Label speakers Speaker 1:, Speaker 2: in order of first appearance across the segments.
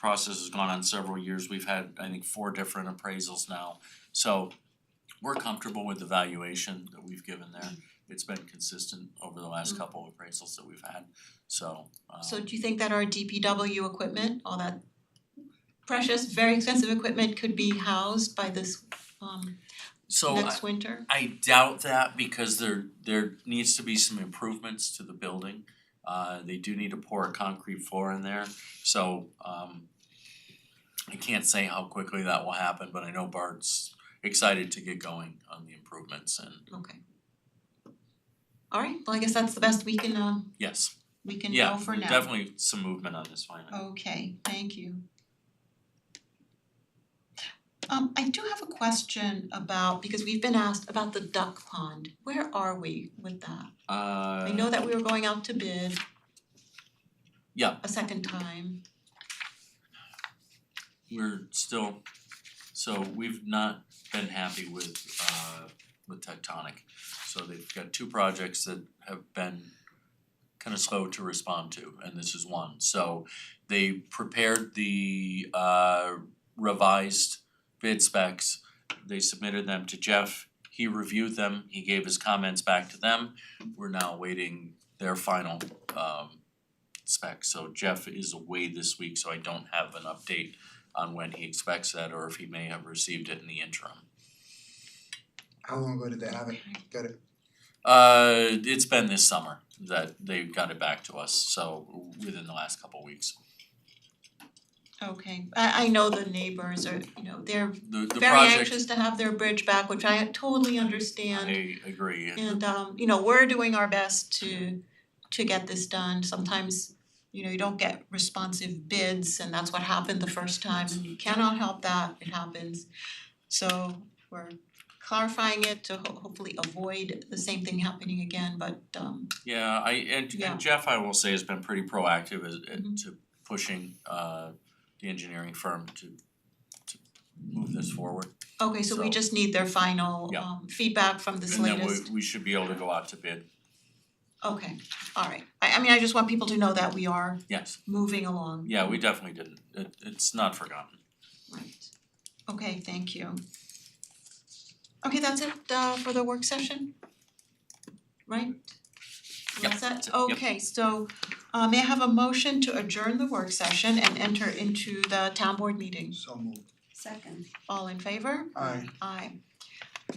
Speaker 1: process has gone on several years. We've had, I think, four different appraisals now. So we're comfortable with the valuation that we've given there.
Speaker 2: Mm-hmm.
Speaker 1: It's been consistent over the last couple of appraisals that we've had, so um
Speaker 2: So do you think that our DPW equipment, all that precious, very expensive equipment could be housed by this um
Speaker 1: so I
Speaker 2: next winter?
Speaker 1: I doubt that because there there needs to be some improvements to the building. Uh they do need to pour a concrete floor in there, so um I can't say how quickly that will happen, but I know Bart's excited to get going on the improvements and
Speaker 2: Okay. Alright, well, I guess that's the best we can uh
Speaker 1: yes,
Speaker 2: we can
Speaker 1: yeah,
Speaker 2: know for now. Oh.
Speaker 1: definitely some movement on this finally.
Speaker 2: Okay, thank you. Um I do have a question about, because we've been asked about the duck pond, where are we with that?
Speaker 1: Uh
Speaker 2: I know that we were going out to bid.
Speaker 1: Yeah.
Speaker 2: A second time,
Speaker 1: we're still, so we've not been happy with uh with Tectonic. So they've got two projects that have been kind of slow to respond to, and this is one. So they prepared the uh revised bid specs. They submitted them to Jeff, he reviewed them, he gave his comments back to them. We're now awaiting their final um specs. So Jeff is away this week, so I don't have an update on when he expects that or if he may have received it in the interim.
Speaker 3: How long ago did they have it? Got it.
Speaker 1: Uh, it's been this summer that they got it back to us, so within the last couple weeks.
Speaker 2: okay, I I know the neighbors are, you know, they're
Speaker 1: The the
Speaker 2: very
Speaker 1: project,
Speaker 2: anxious to have their bridge back, which I totally understand.
Speaker 1: I agree,
Speaker 2: And um, you know, we're doing our best to to get this done. Sometimes, you know, you don't get responsive bids and that's what happened the first time and you cannot help that, it happens. So we're clarifying it to ho- hopefully avoid the same thing happening again, but um
Speaker 1: Yeah, I and
Speaker 2: Yeah.
Speaker 1: and Jeff, I will say, has been pretty proactive as at-
Speaker 2: Mhm.
Speaker 1: to pushing uh the engineering firm to to move this forward.
Speaker 2: okay, so we
Speaker 1: So-
Speaker 2: just need their final
Speaker 1: Yeah.
Speaker 2: um feedback from this latest.
Speaker 1: And then we we should be able to go out to bid,
Speaker 2: Okay, alright. I I mean, I just want people to know that we are
Speaker 1: yes,
Speaker 2: moving along.
Speaker 1: yeah, we definitely didn't, it it's not forgotten.
Speaker 2: Right, okay, thank you. Okay, that's it uh for the work session? Right?
Speaker 1: Yep,
Speaker 2: That's
Speaker 1: that's
Speaker 2: that,
Speaker 1: it, yep.
Speaker 2: okay, so uh may I have a motion to adjourn the work session and enter into the town board meeting?
Speaker 3: So moved.
Speaker 4: Second.
Speaker 2: All in favor?
Speaker 3: Aye.
Speaker 2: Aye.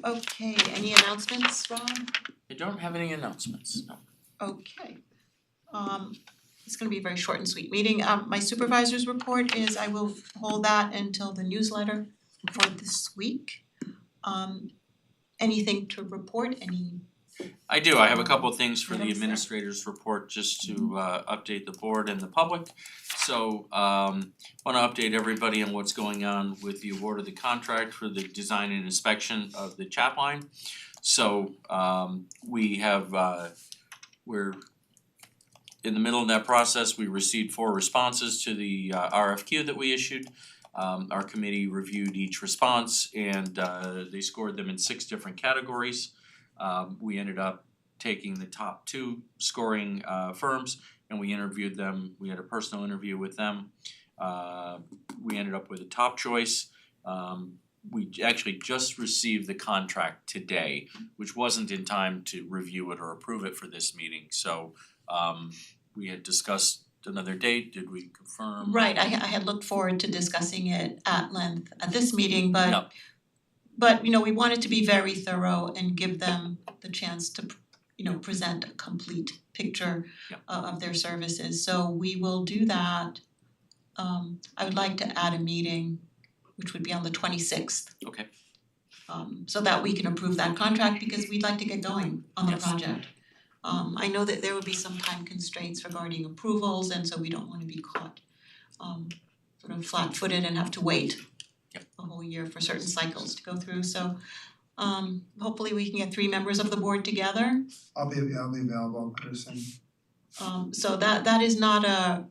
Speaker 2: Okay, any announcements, Rob?
Speaker 1: I don't have any announcements, no.
Speaker 2: Okay. Um it's gonna be a very short and sweet meeting. Um my supervisor's report is I will hold that until the newsletter for this week. Um anything to report, any,
Speaker 1: I do, I have a couple of things for
Speaker 2: Madam
Speaker 1: the
Speaker 2: Chair.
Speaker 1: administrator's report, just to uh update the board and the public. So um wanna update everybody on what's going on with the award of the contract for the design and inspection of the chap line. So um we have uh we're in the middle of that process, we received four responses to the uh RFQ that we issued. Um our committee reviewed each response and uh they scored them in six different categories. Um we ended up taking the top two scoring uh firms and we interviewed them, we had a personal interview with them. Uh we ended up with a top choice. Um we j- actually just received the contract today, which wasn't in time to review it or approve it for this meeting, so um we had discussed another date, did we confirm?
Speaker 2: right, I I had looked forward to discussing it at length at this meeting, but
Speaker 1: Yep.
Speaker 2: but you know, we wanted to be very thorough and give them the chance to you know, present a complete picture
Speaker 1: Yep.
Speaker 2: o- of their services, so we will do that. Um I would like to add a meeting, which would be on the twenty sixth.
Speaker 1: Okay.
Speaker 2: Um so that we can approve that contract because we'd like to get going on the
Speaker 1: Yes.
Speaker 2: project. Um I know that there would be some time constraints regarding approvals and so we don't wanna be caught um sort of flat footed and have to wait
Speaker 1: Yep.
Speaker 2: a whole year for certain cycles to go through, so um hopefully we can get three members of the board together
Speaker 3: I'll be, yeah, I'll be available, Chris, and
Speaker 2: um so that that is not a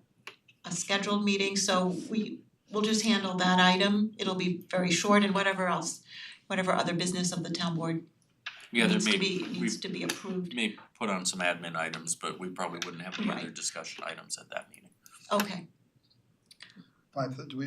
Speaker 2: a scheduled meeting, so we will just handle that item. It'll be very short and whatever else, whatever other business of the town board
Speaker 1: Yeah, there
Speaker 2: needs
Speaker 1: may
Speaker 2: to be
Speaker 1: we-
Speaker 2: needs to be approved.
Speaker 1: may put on some admin items, but we probably wouldn't have any other
Speaker 2: Right.
Speaker 1: discussion items at that meeting.
Speaker 2: Okay.
Speaker 3: Five, do we,